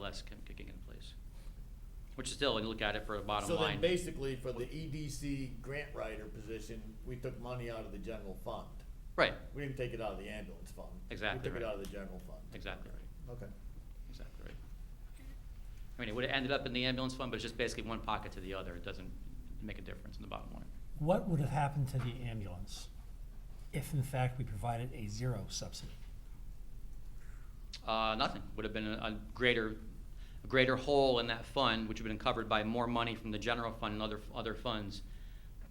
less come kicking in place. Which is still, when you look at it for a bottom So then line, basically for the EDC grant writer position, we took money out of the general fund. right, We didn't take it out of the ambulance fund. Exactly We took it right. out of the general fund. Exactly right. Okay. exactly right. I mean, it would've ended up in the ambulance fund, but it's just basically one pocket to the other, it doesn't make a difference in the bottom line. What would have happened to the ambulance if in fact we provided a zero subsidy? Uh, nothing. Would have been a, a greater, a greater hole in that fund, which would have been covered by more money from the general fund and other, other funds,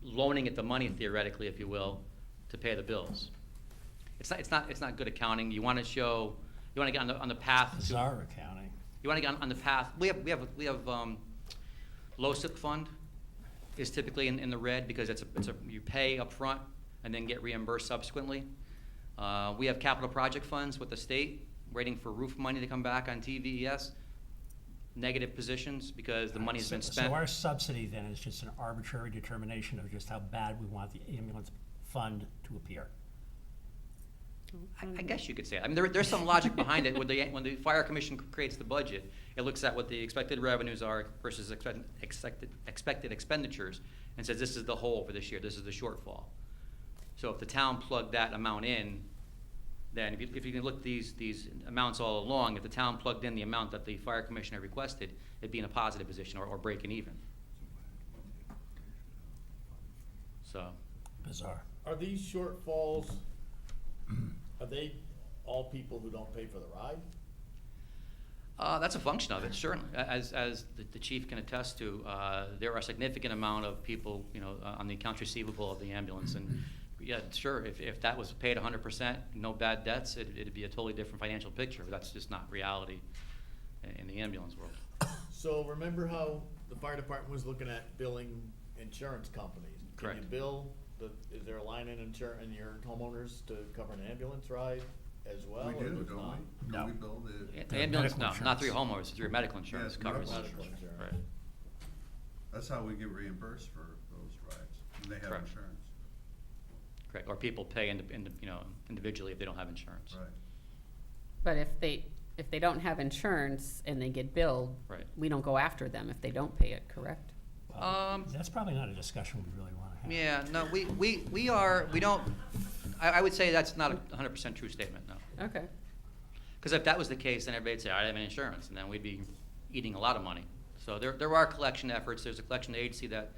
loaning it the money theoretically, if you will, to pay the bills. It's not, it's not, it's not good accounting. You want to show, you want to get on the, on the path to Bizarre accounting. you want to get on, on the path, we have, we have, we have, um, LoSiP fund is typically in, in the red because it's a, it's a, you pay upfront and then get reimbursed subsequently. Uh, we have capital project funds with the state, waiting for roof money to come back on TVES. Negative positions because the money's been So- spent. So our subsidy then is just an arbitrary determination of just how bad we want the ambulance fund to appear. I, Mm-hmm. I guess you could say. that. I mean, there, there's some logic behind it. When the, when the fire commission creates the budget, it looks at what the expected revenues are versus expect, expected, expected expenditures and says, this is the hole for this year, this is the shortfall. So if the town plugged that amount in, then if you, if you can look these, these amounts all along, if the town plugged in the amount that the fire commissioner requested, it'd be in a positive position or, or breaking even. So, Bizarre. Are these shortfalls, are they all people who don't pay for the ride? Uh, that's a function of it, certainly. A- As, as the- the chief can attest to, uh, there are a significant amount of people, you know, uh, on the accounts receivable of the ambulance. And yeah, sure, if, if that was paid hundred percent, no bad debts, it, it'd be a totally different financial picture. But that's just not reality i- in the ambulance world. So remember how the fire department was looking at billing insurance companies? Can Correct. you bill, the, is there a line in insurance, in your homeowners to cover an ambulance ride as well? We or do, it's not? don't we? No. Don't we build it? The ambulance, medical no, not insurance. through homeowners, it's through medical insurance it's covers. medical Medical insurance. Right. That's how we get reimbursed for those rides, and they have Correct. insurance, Correct, or people pay in, in, you know, individually if they don't have insurance. right? But if they, if they don't have insurance and they get billed, Right. we don't go after them if they don't pay it, correct? Um, That's probably not a discussion we really want to have. Yeah, no, we, we, we are, we don't, I, I would say that's not a hundred percent true statement, no. Okay. Because if that was the case, then everybody'd say, I have an insurance, and then we'd be eating a lot of money. So there, there are collection efforts, there's a collection agency that,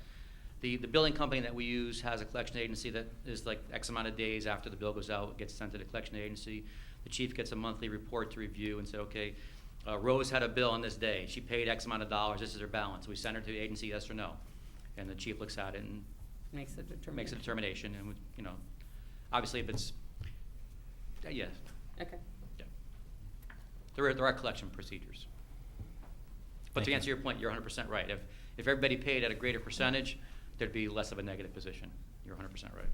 the, the billing company that we use has a collection agency that is like X amount of days after the bill goes out, it gets sent to the collection agency. The chief gets a monthly report to review and say, okay, uh, Rose had a bill on this day, she paid X amount of dollars, this is her balance, we send her to the agency, yes or no? And the chief looks at it and Makes a determination. makes a determination, and, would- you know, obviously if it's, uh, yes, Okay. yeah. There are, there are collection procedures. But Thank to you. answer your point, you're hundred percent right. If, if everybody paid at a greater percentage, there'd be less of a negative position. You're hundred percent right.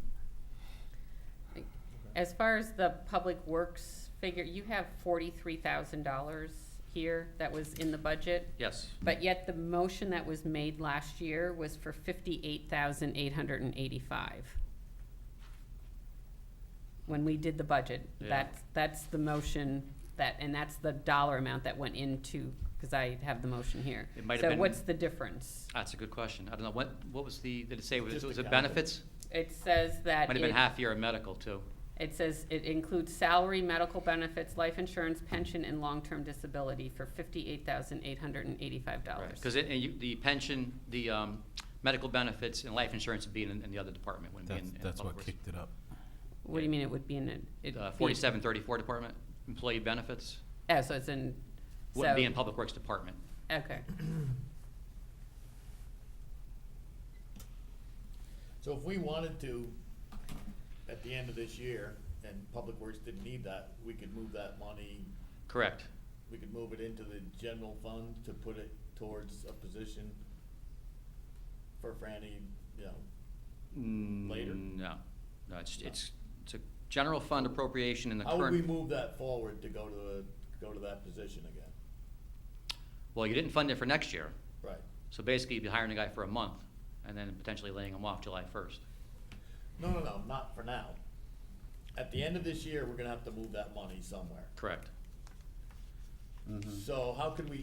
As far as the public works figure, you have forty-three thousand dollars here that was in the budget. Yes, But yet the motion that was made last year was for fifty-eight thousand eight hundred and eighty-five. When we did the budget, Yeah. that's, that's the motion that, and that's the dollar amount that went into, cause I have the motion here. It might have So been- what's the difference? that's a good question. I don't know, what, what was the, did it say, was Just it, was it accounting. benefits? It says that Might have been it- half year of medical too. It says it includes salary, medical benefits, life insurance, pension, and long-term disability for fifty-eight thousand eight hundred and eighty-five dollars. Because it, and you, the pension, the, um, medical benefits and life insurance would be in, in the other department, wouldn't be in, That's, in that's public what works. kicked it up. What do you mean it would be in a? it'd Uh, be- forty-seven thirty-four department, employee benefits. Oh, so it's in, Wouldn't be so- in Public Works Department. okay. So if we wanted to, at the end of this year, and Public Works didn't need that, we could move that money, Correct. we could move it into the general fund to put it towards a position for Franny, you know. Later? No, no, it's, it's, it's a general fund appropriation in the How would we current, move that forward to go to, the- go to that position again? well, you didn't fund it for next year. Right. So basically, you'd be hiring a guy for a month and then potentially laying him off July first. No, no, no, not for now. At the end of this year, we're gonna have to move that money somewhere. Correct. So how could we